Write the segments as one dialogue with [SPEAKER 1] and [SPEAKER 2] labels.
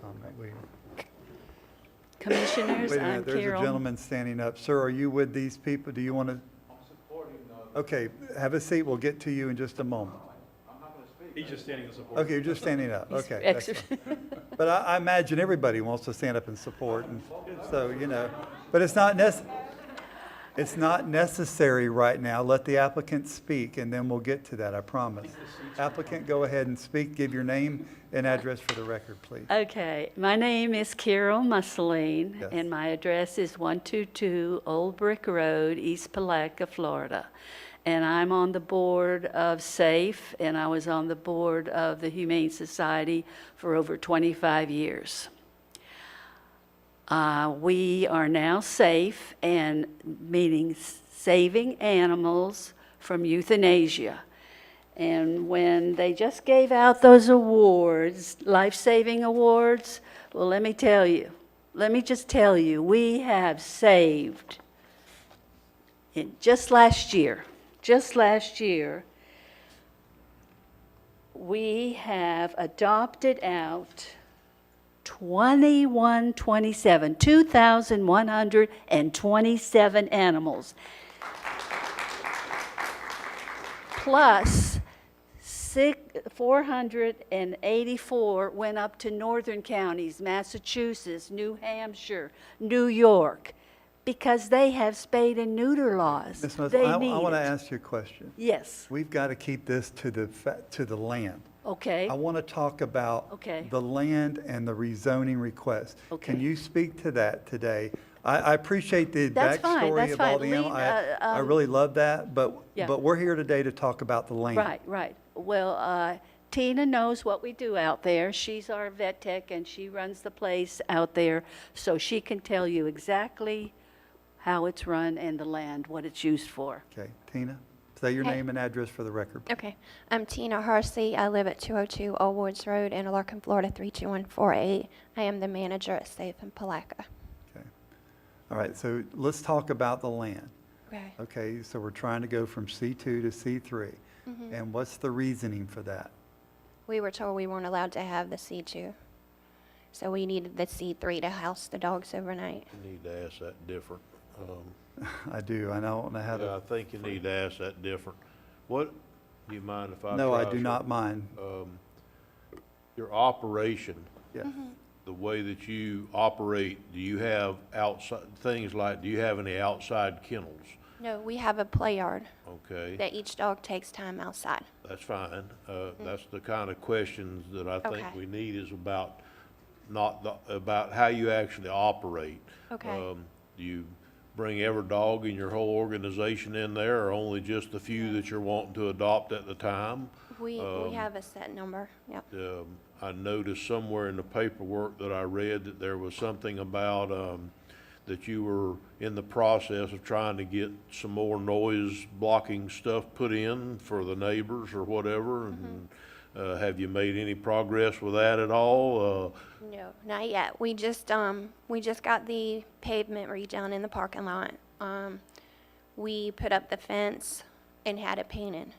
[SPEAKER 1] comment. Wait,
[SPEAKER 2] Commissioners,
[SPEAKER 1] wait a
[SPEAKER 2] I'm
[SPEAKER 1] minute, there's a
[SPEAKER 2] Carol.
[SPEAKER 1] gentleman standing up. Sir, are you with these people? Do you want to? Okay, have a seat. We'll get to you in just a moment.
[SPEAKER 3] He's just standing in support.
[SPEAKER 1] Okay, you're just standing up.
[SPEAKER 2] He's
[SPEAKER 1] Okay. that's
[SPEAKER 2] exer-
[SPEAKER 1] fine. But I, I imagine everybody wants to stand up and support, and so, you know, but it's not necess, it's not necessary right now. Let the applicant speak, and then we'll get to that, I promise. Applicant, go ahead and speak, give your name and address for the record, please.
[SPEAKER 2] Okay, my name is Carol Musseline,
[SPEAKER 1] Yes.
[SPEAKER 2] and my address is 122 Old Brick Road, East Palatka, Florida. And I'm on the board of SAFE, and I was on the board of the Humane Society for over 25 years. Uh, We are now safe and meaning s- saving animals from euthanasia. And when they just gave out those awards, life-saving awards, well, let me tell you, let me just tell you, we have saved in just last year, just last year, we have adopted out 2127, 2,127 animals. Plus, six- 484 went up to northern counties, Massachusetts, New Hampshire, New York, because they have spade and neuter laws.
[SPEAKER 1] Ms. Muslin,
[SPEAKER 2] They
[SPEAKER 1] I,
[SPEAKER 2] need
[SPEAKER 1] I want to
[SPEAKER 2] it.
[SPEAKER 1] ask you a question.
[SPEAKER 2] Yes,
[SPEAKER 1] We've got to keep this to the, fa- to the land.
[SPEAKER 2] okay.
[SPEAKER 1] I want to talk about
[SPEAKER 2] Okay.
[SPEAKER 1] the land and the rezoning request. Can
[SPEAKER 2] Okay.
[SPEAKER 1] you speak to that today? I, I appreciate the
[SPEAKER 2] That's fine,
[SPEAKER 1] backstory
[SPEAKER 2] that's
[SPEAKER 1] of all
[SPEAKER 2] fine.
[SPEAKER 1] the animal.
[SPEAKER 2] Lean,
[SPEAKER 1] I,
[SPEAKER 2] uh,
[SPEAKER 1] I
[SPEAKER 2] um,
[SPEAKER 1] really love that, but,
[SPEAKER 2] Yeah.
[SPEAKER 1] but we're here today to talk about the land.
[SPEAKER 2] Right, right. Well, uh, Tina knows what we do out there. She's our vet tech and she runs the place out there, so she can tell you exactly how it's run and the land, what it's used for.
[SPEAKER 1] Okay, Tina, say your
[SPEAKER 4] Okay.
[SPEAKER 1] name and address for the record. please.
[SPEAKER 4] Okay. I'm Tina Harsey. I live at 202 Old Woods Road, Interlaken, Florida, 32148. I am the manager at Safe in Palaca.
[SPEAKER 1] Okay. All right, so let's talk about the land.
[SPEAKER 4] Okay.
[SPEAKER 1] Okay, so we're trying to go from C2 to C3. And what's the reasoning for that?
[SPEAKER 4] We were told we weren't allowed to have the C2. So we needed the C3 to house the dogs overnight.
[SPEAKER 5] You need to ask that different. Um,
[SPEAKER 1] I do, and I don't know how
[SPEAKER 5] yeah, I
[SPEAKER 1] to,
[SPEAKER 5] think you need to ask that different. What, do you mind if I try?
[SPEAKER 1] no, I do
[SPEAKER 5] some-
[SPEAKER 1] not mind.
[SPEAKER 5] Oh. Your operation,
[SPEAKER 1] Yeah.
[SPEAKER 4] Mm-hmm.
[SPEAKER 5] the way that you operate, do you have outside, things like, do you have any outside kennels?
[SPEAKER 4] No, we have a play yard
[SPEAKER 5] Okay,
[SPEAKER 4] that each dog takes time outside.
[SPEAKER 5] that's fine. Uh, that's the kind of questions that I think
[SPEAKER 4] Mm. Okay.
[SPEAKER 5] we need is about not the, about how you actually operate.
[SPEAKER 4] Okay.
[SPEAKER 5] Um, Do you bring every dog in your whole organization in there, or only just the few that you're wanting to adopt at the time?
[SPEAKER 4] We, we have a set number. Yep.
[SPEAKER 5] Um, I noticed somewhere in the paperwork that I read that there was something about, um, that you were in the process of trying to get some more noise blocking stuff put in for the neighbors or whatever, and,
[SPEAKER 4] Mm-hmm.
[SPEAKER 5] uh, have you made any progress with that at all? Uh,
[SPEAKER 4] No, not yet. We just, um, we just got the pavement redone in the parking lot. Um, we put up the fence and had it painted.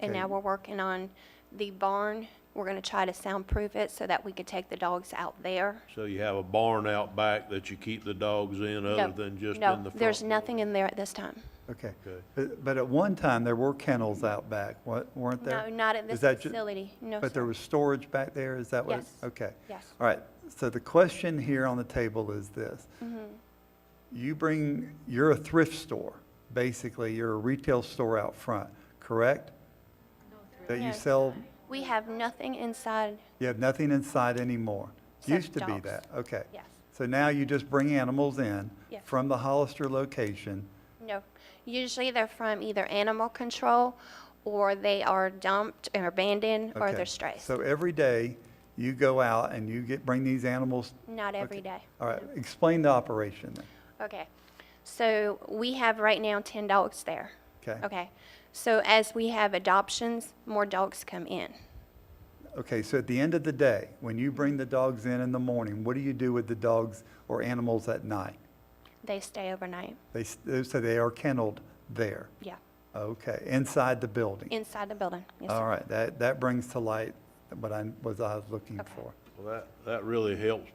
[SPEAKER 4] And now
[SPEAKER 1] Okay.
[SPEAKER 4] we're working on the barn. We're gonna try to soundproof it so that we could take the dogs out there.
[SPEAKER 5] So you have a barn out back that you keep the dogs in
[SPEAKER 4] No,
[SPEAKER 5] other than just in the
[SPEAKER 4] no,
[SPEAKER 5] front?
[SPEAKER 4] There's nothing in there at this time.
[SPEAKER 1] Okay.
[SPEAKER 5] Okay.
[SPEAKER 1] But but at one time, there were kennels out back, wa- weren't there?
[SPEAKER 4] No, not at
[SPEAKER 1] Is
[SPEAKER 4] this
[SPEAKER 1] that ju-
[SPEAKER 4] facility. No,
[SPEAKER 1] But there
[SPEAKER 4] sir.
[SPEAKER 1] was storage back there, is that what? it-
[SPEAKER 4] Yes.
[SPEAKER 1] Okay.
[SPEAKER 4] Yes.
[SPEAKER 1] All right, so the question here on the table is this.
[SPEAKER 4] Mm-hmm.
[SPEAKER 1] You bring, you're a thrift store, basically, you're a retail store out front, correct? That you
[SPEAKER 4] No.
[SPEAKER 1] sell,
[SPEAKER 4] We have nothing inside.
[SPEAKER 1] you have nothing inside anymore. Used
[SPEAKER 4] Except
[SPEAKER 1] to be
[SPEAKER 4] dogs.
[SPEAKER 1] that, okay.
[SPEAKER 4] Yes.
[SPEAKER 1] So now you just bring animals in
[SPEAKER 4] Yes.
[SPEAKER 1] from the Hollister location,
[SPEAKER 4] No. Usually they're from either animal control or they are dumped and abandoned or
[SPEAKER 1] Okay.
[SPEAKER 4] they're strays.
[SPEAKER 1] So every day, you go out and you get, bring these animals?
[SPEAKER 4] Not every
[SPEAKER 1] Okay.
[SPEAKER 4] day.
[SPEAKER 1] All right, explain the operation then.
[SPEAKER 4] Okay. So we have right now 10 dogs there.
[SPEAKER 1] Okay.
[SPEAKER 4] Okay. So as we have adoptions, more dogs come in.
[SPEAKER 1] Okay, so at the end of the day, when you bring the dogs in in the morning, what do you do with the dogs or animals at night?
[SPEAKER 4] They stay overnight.
[SPEAKER 1] They, s- uh, so they are kenneled there?
[SPEAKER 4] Yeah.
[SPEAKER 1] Okay, inside the building?
[SPEAKER 4] Inside the building. Yes, sir.
[SPEAKER 1] All right, that, that brings to light what I was, I was looking for.
[SPEAKER 5] Well, that, that really helps